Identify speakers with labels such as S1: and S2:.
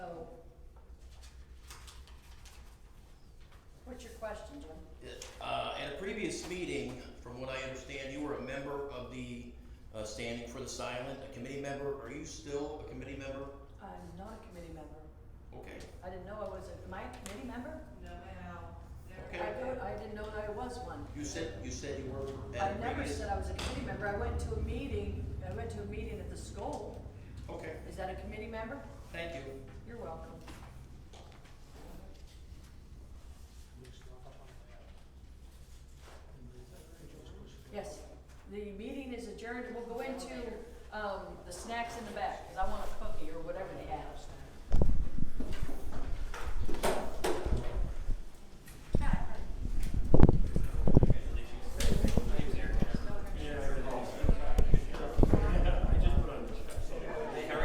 S1: Uh, uh, standing for the silent, a committee member, are you still a committee member?
S2: I'm not a committee member.
S1: Okay,
S2: I didn't know I was, a- am I a committee member?
S3: No, ma'am. Never
S1: Okay.
S2: I don't, I didn't know that I was one.
S1: you said, you said you were
S2: I
S1: at a
S2: never
S1: previous.
S2: said I was a committee member. I went to a meeting, I went to a meeting at the school.
S1: Okay,
S2: Is that a committee member?
S1: thank you.
S2: You're welcome. Yes, the meeting is adjourned. We'll go into, um, the snacks in the back, cause I wanna